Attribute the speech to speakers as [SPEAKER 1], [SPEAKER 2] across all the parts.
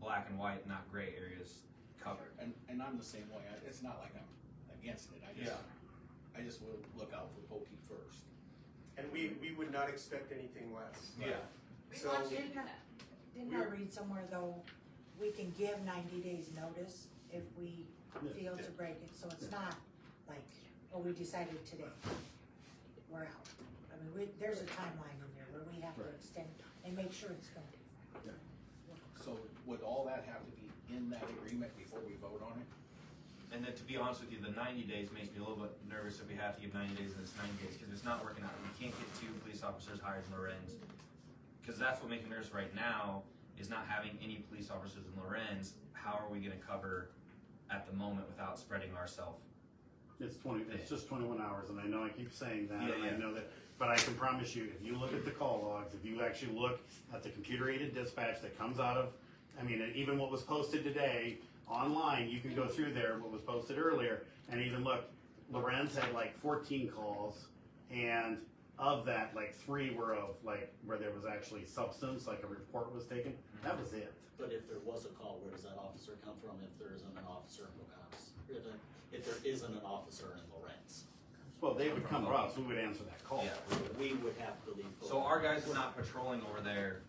[SPEAKER 1] black and white, not gray areas covered.
[SPEAKER 2] And, and I'm the same way, I, it's not like I'm against it, I just, I just will look out for pokey first.
[SPEAKER 3] And we, we would not expect anything less.
[SPEAKER 1] Yeah.
[SPEAKER 4] We
[SPEAKER 3] So-
[SPEAKER 4] want you to
[SPEAKER 5] Didn't I read somewhere though, we can give ninety days notice if we feel to break it, so it's not like, oh, we decided today, we're out. I mean, we, there's a timeline in there where we have to
[SPEAKER 6] Right.
[SPEAKER 5] extend and make sure it's going.
[SPEAKER 2] So would all that have to be in that agreement before we vote on it?
[SPEAKER 1] And then to be honest with you, the ninety days makes me a little bit nervous if we have to give ninety days and it's ninety days, cause it's not working out. We can't get two police officers hired in Lorenz. Cause that's what makes me nervous right now, is not having any police officers in Lorenz. How are we gonna cover at the moment without spreading ourselves?
[SPEAKER 6] It's twenty, it's just twenty-one hours, and I know I keep saying that,
[SPEAKER 1] Yeah,
[SPEAKER 6] and I
[SPEAKER 1] yeah.
[SPEAKER 6] know that, but I can promise you, if you look at the call logs, if you actually look at the computer aided dispatch that comes out of, I mean, and even what was posted today online, you can go through there, what was posted earlier, and even look, Lorenz had like fourteen calls, and of that, like three were of, like, where there was actually substance, like a report was taken, that was it.
[SPEAKER 7] But if there was a call, where does that officer come from if there isn't an officer in Pocahontas? If there- If there isn't an officer in Lawrence,
[SPEAKER 6] Well, they would come to us, we would answer that call.
[SPEAKER 1] Yeah.
[SPEAKER 7] we would have to leave.
[SPEAKER 1] So our guys are not patrolling over there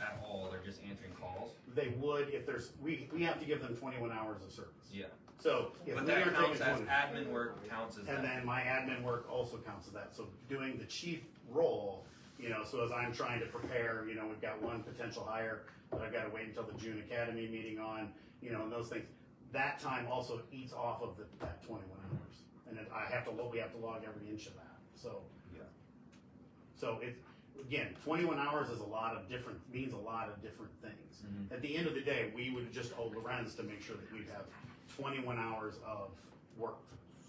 [SPEAKER 1] at all, they're just answering calls?
[SPEAKER 6] They would if there's, we, we have to give them twenty-one hours of service.
[SPEAKER 1] Yeah.
[SPEAKER 6] So if
[SPEAKER 1] But
[SPEAKER 6] we
[SPEAKER 1] that
[SPEAKER 6] are taking
[SPEAKER 1] counts as
[SPEAKER 6] 20,
[SPEAKER 1] admin work counts as
[SPEAKER 6] and
[SPEAKER 1] that.
[SPEAKER 6] then my admin work also counts as that. So doing the chief role, you know, so as I'm trying to prepare, you know, we've got one potential hire that I've got to wait until the June Academy meeting on, you know, and those things. That time also eats off of the, that twenty-one hours, and then I have to, lo- we have to log every inch of that, so.
[SPEAKER 1] Yeah.
[SPEAKER 6] So it's, again, twenty-one hours is a lot of different, means a lot of different things.
[SPEAKER 1] Mhm.
[SPEAKER 6] At the end of the day, we would just owe Lorenz to make sure that we have twenty-one hours of work,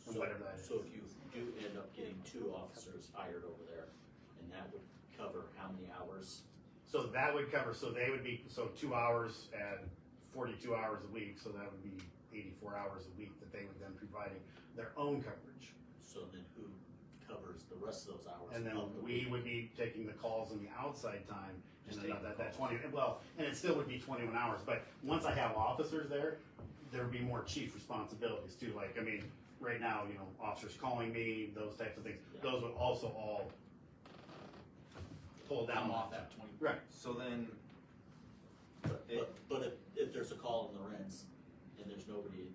[SPEAKER 6] or
[SPEAKER 7] So-
[SPEAKER 6] whatever that is.
[SPEAKER 7] So if you do end up getting two officers hired over there, and that would cover how many hours?
[SPEAKER 6] So that would cover, so they would be, so two hours at forty-two hours a week, so that would be eighty-four hours a week that they would then providing their own coverage.
[SPEAKER 7] So then who covers the rest of those hours?
[SPEAKER 6] And then
[SPEAKER 7] of the
[SPEAKER 6] we
[SPEAKER 7] week?
[SPEAKER 6] would be taking the calls in the outside time, and
[SPEAKER 1] Just
[SPEAKER 6] then
[SPEAKER 1] taking
[SPEAKER 6] that,
[SPEAKER 1] the
[SPEAKER 6] that
[SPEAKER 1] calls.
[SPEAKER 6] twenty, well, and it still would be twenty-one hours, but once I have officers there, there would be more chief responsibilities too, like, I mean, right now, you know, officers calling me, those types of things,
[SPEAKER 7] Yeah.
[SPEAKER 6] those would also all pull down.
[SPEAKER 2] I'm off that twenty.
[SPEAKER 6] Right,
[SPEAKER 1] So then,
[SPEAKER 7] But,
[SPEAKER 1] it-
[SPEAKER 7] but- but if, if there's a call in Lawrence and there's nobody,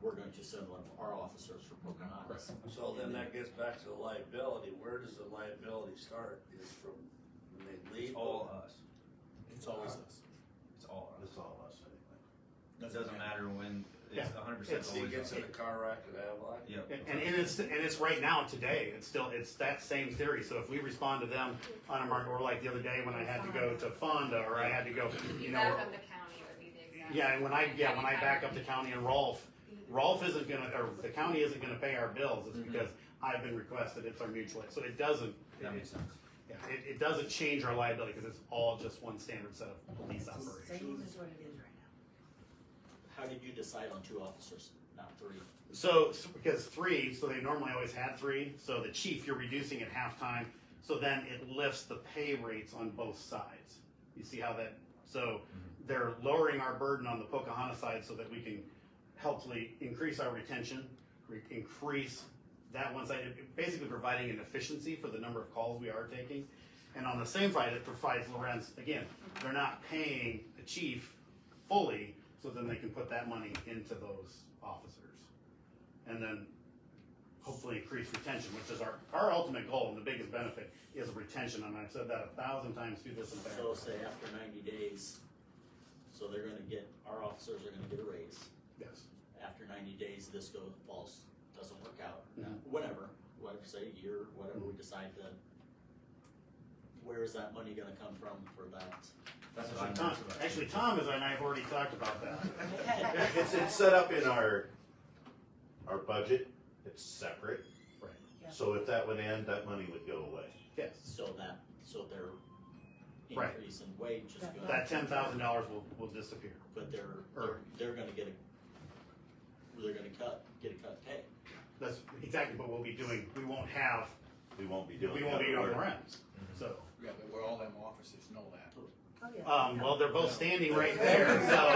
[SPEAKER 7] we're going to send one of our officers from Pocahontas.
[SPEAKER 8] So then that gets back to the liability, where does the liability start, is from when they leave?
[SPEAKER 1] it's all us,
[SPEAKER 2] It's always us.
[SPEAKER 1] it's all us.
[SPEAKER 6] that's all us, anyway.
[SPEAKER 1] Uh, It doesn't matter when, it's
[SPEAKER 6] Yeah.
[SPEAKER 1] hundred percent
[SPEAKER 6] It's-
[SPEAKER 8] He
[SPEAKER 1] always
[SPEAKER 8] gets
[SPEAKER 1] us.
[SPEAKER 8] in a car wreck and have
[SPEAKER 1] Yep.
[SPEAKER 6] And, and it's and it's right now today. It's still it's that same theory. So if we respond to them on a market, or like the other day when I had to go to Fonda, or I had to go, you know,
[SPEAKER 4] back
[SPEAKER 6] or-
[SPEAKER 4] up the county would be the exact.
[SPEAKER 6] yeah, and when I yeah when I back up to county and Rolf, Rolf isn't gonna or the county isn't gonna pay our bills. It's
[SPEAKER 1] Mhm.
[SPEAKER 6] because I've been requested. It's our mutual aid. So it doesn't
[SPEAKER 1] That
[SPEAKER 6] it,
[SPEAKER 1] makes sense.
[SPEAKER 6] it, it doesn't change our liability because it's all just one standard set of
[SPEAKER 5] It's
[SPEAKER 6] police
[SPEAKER 5] the
[SPEAKER 6] operations.
[SPEAKER 5] Same as what it is right now.
[SPEAKER 7] How did you decide on two officers, not three?
[SPEAKER 6] So, s- because three, so they normally always had three, so the chief, you're reducing at halftime, so then it lifts the pay rates on both sides. You see how that, so they're lowering our burden on the Pocahontas side so that we can helpfully increase our retention, re- increase that one side, basically providing an efficiency for the number of calls we are taking. And on the same side, it provides Lorenz, again, they're not paying the chief fully, so then they can put that money into those officers and then hopefully increase retention, which is our, our ultimate goal and the biggest benefit is retention, and I've said that a thousand times through this and back.
[SPEAKER 7] So say after ninety days, so they're gonna get, our officers are gonna get a raise.
[SPEAKER 6] Yes,
[SPEAKER 7] After ninety days, this goes, falls, doesn't work out,
[SPEAKER 6] Mhm.
[SPEAKER 7] whatever, whatever, say a year, whatever we decide to. Where is that money gonna come from for that?
[SPEAKER 1] That's what I'm
[SPEAKER 6] actually, Tom,
[SPEAKER 1] nervous about.
[SPEAKER 6] actually, Tom is, and I have already talked about that.
[SPEAKER 9] It's, it's set up in our, our budget, it's separate.
[SPEAKER 6] Right.
[SPEAKER 5] Yeah.
[SPEAKER 9] So if that would end, that money would go away.
[SPEAKER 6] Yes,
[SPEAKER 7] So that, so their
[SPEAKER 6] Right.
[SPEAKER 7] increase in wage is
[SPEAKER 5] That-
[SPEAKER 7] gonna.
[SPEAKER 6] that ten thousand dollars will, will disappear.
[SPEAKER 7] But they're,
[SPEAKER 6] Or-
[SPEAKER 7] they're gonna get a, they're gonna cut, get a cut pay.
[SPEAKER 6] That's exactly what we'll be doing, we won't have,
[SPEAKER 9] We won't be doing.
[SPEAKER 6] we won't be
[SPEAKER 9] that
[SPEAKER 6] on
[SPEAKER 9] work. Mm-hmm.
[SPEAKER 6] rents, so.
[SPEAKER 2] Yeah, but we're all them officers know that.
[SPEAKER 5] Oh, yeah.
[SPEAKER 6] Um, well, they're both standing right there, so.